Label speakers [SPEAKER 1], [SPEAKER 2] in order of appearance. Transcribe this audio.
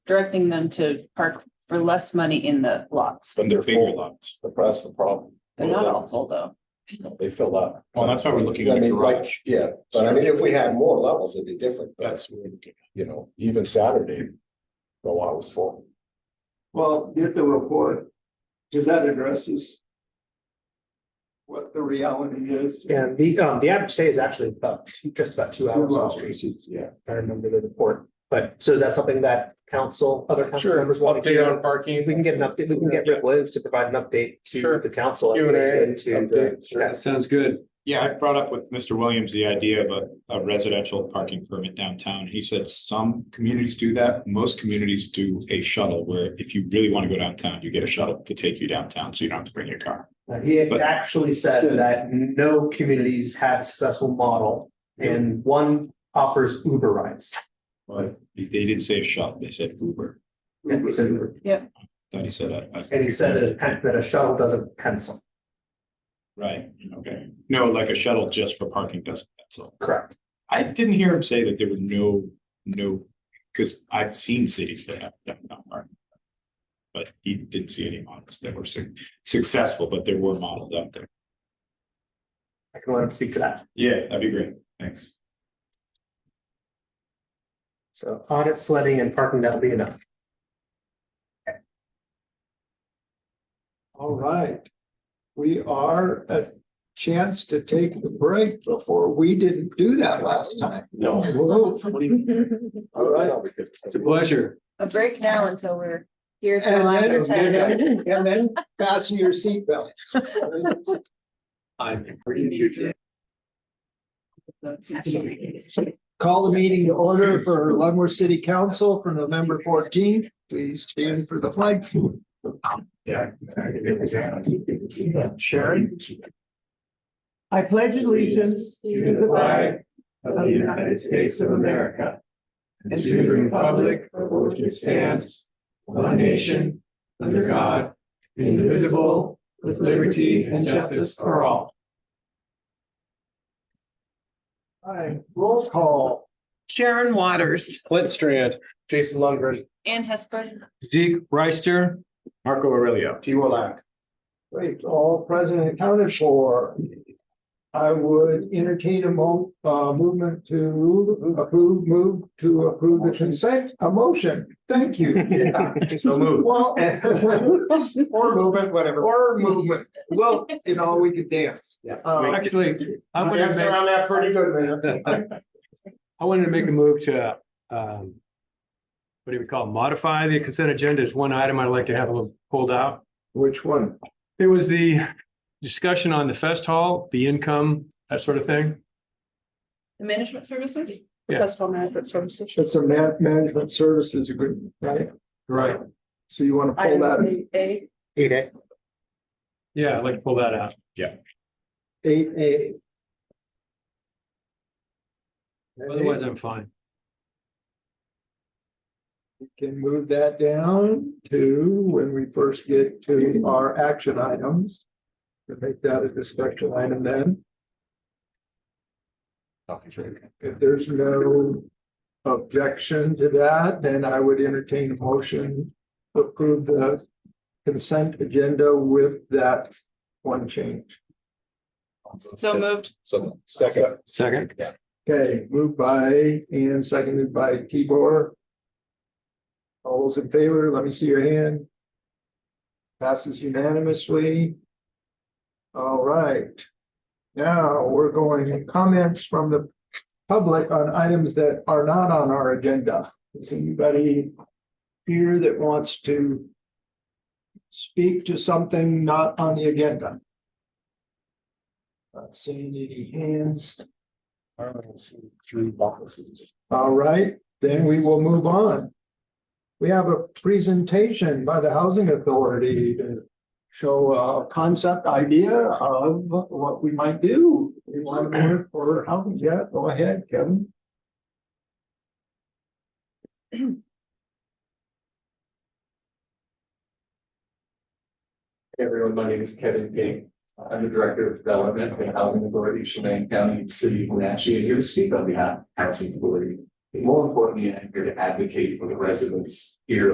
[SPEAKER 1] directing them to park for less money in the lots.
[SPEAKER 2] When they're
[SPEAKER 3] Bigger
[SPEAKER 2] full.
[SPEAKER 3] lots.
[SPEAKER 4] But That's the problem.
[SPEAKER 1] They're not all full though.
[SPEAKER 4] They fill up.
[SPEAKER 3] Well, that's why we're looking at
[SPEAKER 4] I
[SPEAKER 3] a
[SPEAKER 4] mean, like,
[SPEAKER 3] garage.
[SPEAKER 4] Yeah, but I mean, if we had more levels, it'd be different. but,
[SPEAKER 3] That's, what we're looking
[SPEAKER 4] You know, even Saturday, the lot was full.
[SPEAKER 5] Well, get the report, because that addresses. What the reality is.
[SPEAKER 6] And the, um, the average stay is actually about, two- just about two hours on the street,
[SPEAKER 5] Yeah.
[SPEAKER 6] if I remember the report. But, so is that something that council, other council members want to hear?
[SPEAKER 3] parking.
[SPEAKER 6] If we can get an update, we can get Rick Williams to provide an update
[SPEAKER 3] Sure.
[SPEAKER 6] to the council.
[SPEAKER 3] Q and A,
[SPEAKER 6] Into the,
[SPEAKER 4] update, sure.
[SPEAKER 3] sounds good. Yeah, I brought up with Mr. Williams the idea of a, a residential parking permit downtown. He said some communities do that. Most communities do a shuttle where if you really want to go downtown, you get a shuttle to take you downtown, so you don't have to bring your car.
[SPEAKER 6] that- Uh, he had actually said that no communities have a successful model and one offers Uber rides.
[SPEAKER 3] But they didn't say shuttle, they said Uber.
[SPEAKER 6] And he said Uber.
[SPEAKER 3] Thought he said that. I-
[SPEAKER 6] And he said that, a- that a shuttle doesn't pencil.
[SPEAKER 3] Right, okay. No, like a shuttle just for parking doesn't, that's all.
[SPEAKER 6] Correct.
[SPEAKER 3] I didn't hear him say that there were no, no, because I've seen cities that have done that. right? But he didn't see any models that were su- successful, but there were models out there.
[SPEAKER 6] I can let him speak to that.
[SPEAKER 3] Yeah, that'd be great. Thanks.
[SPEAKER 6] So audit sledding and parking, that'll be enough.
[SPEAKER 5] All right. We are a chance to take a break before we didn't do that last time.
[SPEAKER 4] No.
[SPEAKER 5] Whoa. All right.
[SPEAKER 4] It's a pleasure.
[SPEAKER 1] A break now until we're here till after
[SPEAKER 5] And
[SPEAKER 1] ten.
[SPEAKER 5] then, and then fasten your seatbelt. Call the meeting to order for Leavenworth City Council for November fourteenth. Please stand for the flag. Sharon? I pledge allegiance
[SPEAKER 7] to the flag of the United States of America and to the republic for which it stands, one nation, under God, indivisible, with liberty and justice for all.
[SPEAKER 5] Aye. Roll call.
[SPEAKER 7] Sharon Waters.
[SPEAKER 8] Clint Strand, Jason Lundgren,
[SPEAKER 1] Ann Hesper,
[SPEAKER 8] Zeke Reister,
[SPEAKER 3] Marco Aurelio.
[SPEAKER 8] T. Wallach.
[SPEAKER 5] Great, all present and accounted for. I would entertain a mo- uh, movement to approve, move to approve the consent, a motion. Thank you. Yeah.
[SPEAKER 8] So moved.
[SPEAKER 5] Well, or movement, whatever, or movement. Well, you know, we could dance. Uh, Yeah.
[SPEAKER 8] Actually, I wanted to make,
[SPEAKER 5] around that pretty good, man.
[SPEAKER 8] I wanted to make a move to, um, what do we call, it? modify the consent agenda is one item I'd like to have a little pulled out.
[SPEAKER 5] Which one?
[SPEAKER 8] It was the discussion on the fest hall, the income, that sort of thing.
[SPEAKER 1] the management services?
[SPEAKER 8] Yeah.
[SPEAKER 1] Festival management services.
[SPEAKER 5] It's a ma- management services agreement, right?
[SPEAKER 8] Right.
[SPEAKER 5] So you want to pull that
[SPEAKER 1] Item A,
[SPEAKER 6] Eight A.
[SPEAKER 8] Yeah, I'd like to pull that out.
[SPEAKER 5] eight A.
[SPEAKER 8] Otherwise, I'm fine.
[SPEAKER 5] We Can move that down to when we first get to our action items. To make that a discussion item then, if there's no objection to that, then I would entertain a motion. to Approve the consent agenda with that one change.
[SPEAKER 1] so moved.
[SPEAKER 4] So second,
[SPEAKER 8] Second.
[SPEAKER 5] Okay, moved by and seconded by Tibor. All those in favor, let me see your hand. Passes unanimously. All right. Now, we're going to comments from the public on items that are not on our agenda. Is anybody here that wants to speak to something not on the agenda? Not seeing any hands. All right, then we will move on. We have a presentation by the Housing Authority to show a concept idea of what we might do. We want to work for housing, yeah, go ahead, Kevin.
[SPEAKER 9] Hey everyone, my name is Kevin King. I'm the Director of Development for the Housing Authority, Chemin County, City of Wenatchee, and here to speak on behalf of the Housing Authority.
[SPEAKER 6] More importantly, I'm here to advocate for the residents here